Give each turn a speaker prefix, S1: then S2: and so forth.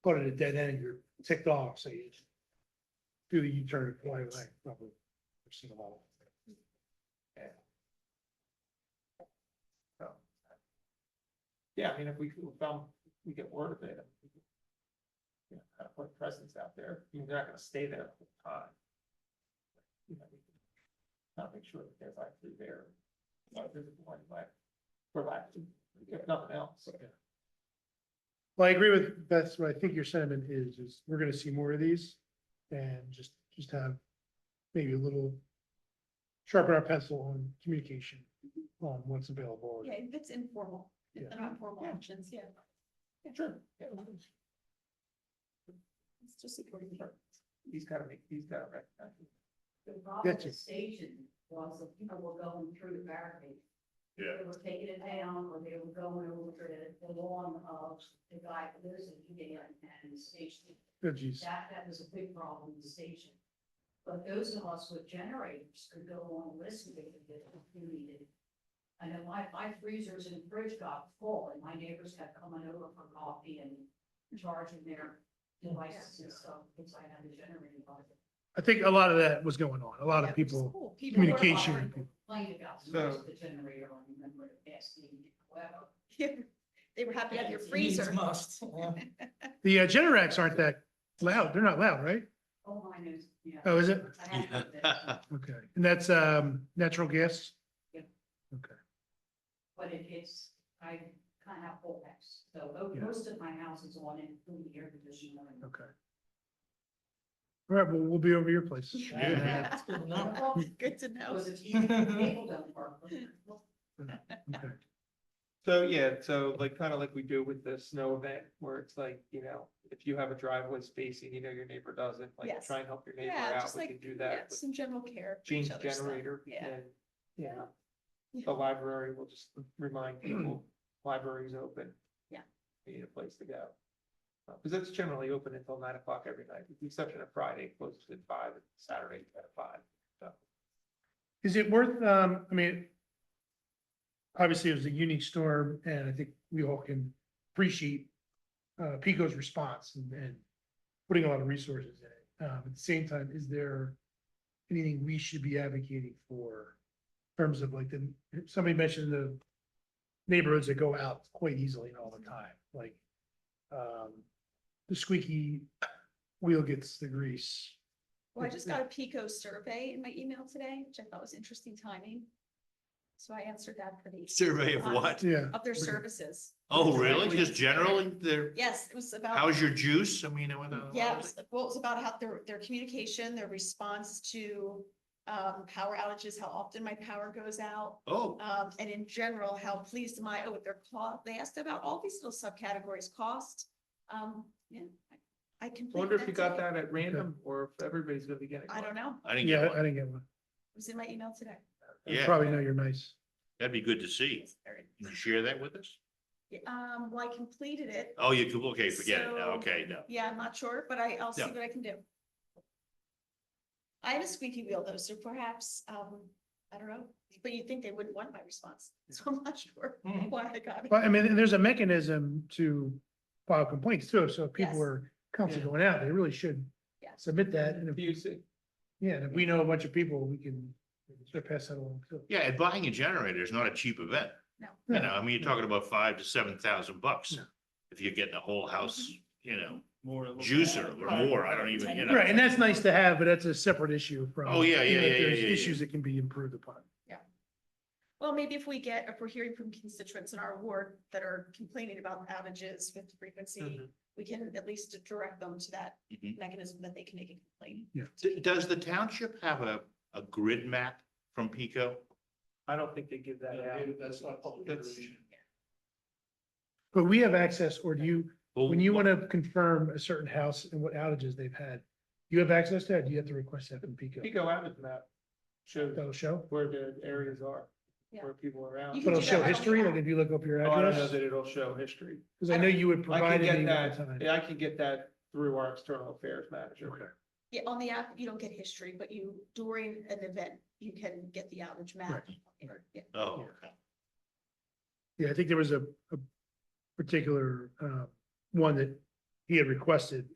S1: go to the dead end, you're ticked off, so you do the U-turn and fly away, probably. I've seen a lot of them.
S2: Yeah, I mean, if we could, um, we get word of it. we could, You know, kind of put a presence out there, you know, they're not gonna stay there the whole time. You know, we can Kind of make sure that they're actually there, not visible anyway, relaxing, if nothing else.
S1: Well, I agree with, that's what I think your sentiment is, is we're gonna see more of these and just, just have maybe a little sharpen our pencil on communication on what's available.
S3: Yeah, if it's informal, if
S1: Yeah.
S3: they're not formal actions, yeah,
S2: Sure. yeah.
S3: it's just supporting.
S2: He's gotta make, he's gotta recognize. it.
S4: The problem at
S1: Gotcha.
S4: the station was that people were going through the barricade.
S5: Yeah.
S4: They were taking it down, or they were going over the, the lawn of the guy who lives in Udall and the station.
S1: Oh geez,
S4: That, that was a big problem in the station. But those of us with generators could go on listening if they needed. I know my, my freezers and fridge got full, and my neighbors kept coming over for coffee and charging their devices and stuff, because I had the generator. on.
S1: I think a lot of that was going on, a lot of people, communication.
S4: Well, I Complained about the noise of the generator on the member of asking, well.
S3: They were happy to have your
S4: Yeah, it's
S3: freezer.
S2: Must.
S1: the uh, Generacs aren't that loud, they're not loud, right?
S4: Oh, my news, yeah.
S1: Oh, is it?
S4: I had heard that,
S1: Okay, and that's, um, natural gas?
S4: Yeah.
S1: Okay,
S4: But it is, I kind of have full house, so mo-
S1: Yeah.
S4: most of my house is on it, including the air conditioner. and-
S1: okay. All right, well, we'll be over your place.
S3: Yeah. Good to know.
S4: Because it's easy, people don't work.
S1: Okay.
S2: So, yeah, so like, kind of like we do with the snow event, where it's like, you know, if you have a driveway space and you know your neighbor doesn't, like,
S3: Yes.
S2: try and help your neighbor
S3: Yeah,
S2: out,
S3: just
S2: we
S3: like,
S2: can do
S3: yeah,
S2: that. with
S3: some general care. for
S2: Change
S3: each other's stuff.
S2: generator,
S3: Yeah.
S2: and, you know,
S3: Yeah.
S2: the library will just remind people, library's open.
S3: Yeah.
S2: You Need a place to go. Because it's generally open until nine o'clock every night, with the exception of Friday, closes at five, and Saturday at five.
S1: Is it worth, um, I mean, obviously it was a unique storm and I think we all can appreciate uh, Pico's response and, and putting a lot of resources in it. Um, at the same time, is there anything we should be advocating for? in Terms of like the, somebody mentioned the neighborhoods that go out quite easily and all the time, like um, the squeaky wheel gets the grease.
S3: Well, I just got a Pico survey in my email today, which I thought was interesting timing. So I answered that for the.
S5: Survey of what?
S1: Yeah.
S3: Of their services.
S5: Oh, really? Just generally, there,
S3: Yes, it was about.
S5: how's your juice? I mean, I went uh, on.
S3: Yeah, it was, well, it was about how their, their communication, their response to, um, power outages, how often my power goes out.
S5: Oh,
S3: Um, and in general, how pleased am I, oh, with their cost, they asked about all these little subcategories, cost, um, yeah. I can.
S2: Wonder if you got that at random, or if everybody's gonna be getting.
S3: I
S2: one.
S3: don't know,
S5: I didn't
S1: Yeah,
S5: get
S1: I
S5: one.
S1: didn't get one.
S3: it was in my email today.
S1: I
S5: Yeah.
S1: Probably know you're nice.
S5: That'd be good to see.
S3: It's very-
S5: Can you share that with us?
S3: Um, well, I completed it.
S5: Oh, you could, okay, forget it.
S3: So,
S5: No, Okay, no.
S3: Yeah, I'm not sure, but I, I'll see
S5: Yeah.
S3: what I can do. I have a squeaky wheel though, so perhaps, um, I don't know, but you'd think they wouldn't want my response, so I'm not sure
S2: Mhm.
S3: why I got it.
S1: Well, I mean, and there's a mechanism to file complaints too, so if people
S3: Yes.
S1: are constantly
S2: Yeah.
S1: going out, they really should
S3: Yeah.
S1: submit that, and if,
S2: Abuse it.
S1: yeah, and if we know a bunch of people, we can sort of pass that along too.
S5: Yeah, and buying a generator is not a cheap event.
S3: No.
S5: You
S1: No.
S5: know, I mean, you're talking about five to seven thousand bucks.
S1: No.
S5: If you're getting a whole house,
S3: Mm-hmm.
S5: you know,
S2: More.
S5: juicer or more, I don't even, you know.
S1: Right, and that's nice to have, but that's a separate issue from.
S5: Oh, yeah,
S1: you know,
S5: yeah,
S1: if
S5: yeah,
S1: there's
S5: yeah, yeah,
S1: Issues that can be improved upon.
S3: Well, maybe if we get, if we're hearing from constituents in our ward that are complaining about outages with frequency,
S2: Mhm.
S3: we can at least direct them to that
S5: Mhm.
S3: mechanism that they can make a complaint.
S5: D- Does the township have a, a grid map from Pico?
S2: I don't think they give that out. That's not public
S1: But we have access, or do you,
S5: Well,
S1: when you want to confirm a certain house and what outages they've had, you have access to that, do you have to request that from Pico?
S2: Pico Abbott map shows
S1: That'll show,
S2: where the areas are,
S3: Yeah.
S2: where people are out.
S3: You
S1: but
S3: can
S1: it'll
S3: do
S1: show
S3: that on the
S1: history, like
S3: app.
S1: if you look up your
S2: Oh, I don't know
S1: address,
S2: that it'll show history.
S1: because I know you would
S2: I
S1: provide
S2: can
S1: it at
S2: get
S1: the time.
S2: that, yeah, I can get that through our external affairs manager.
S1: Okay.
S3: Yeah, on the app, you don't get history, but you, during an event, you can get the outage map.
S1: right.
S3: Yeah.
S5: Oh,
S1: Yeah, I think there was a, a particular, uh, one that he had requested